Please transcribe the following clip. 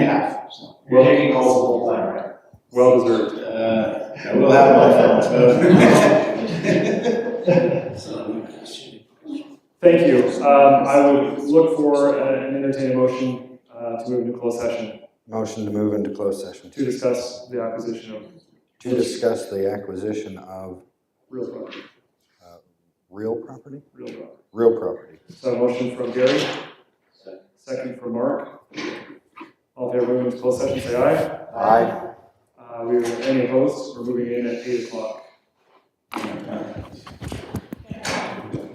You're taking calls the whole time, right? Well deserved. Uh, I will have my phone, but. Thank you. Um, I would look for uh, and entertain a motion uh, to move into closed session Motion to move into closed session to discuss the acquisition of to discuss the acquisition of real property. real property? Real property. Real property. So a motion from Gary, second from Mark. All in favor of moving into closed session, say aye. Aye. Uh, we are any opposed. We're moving in at eight o'clock.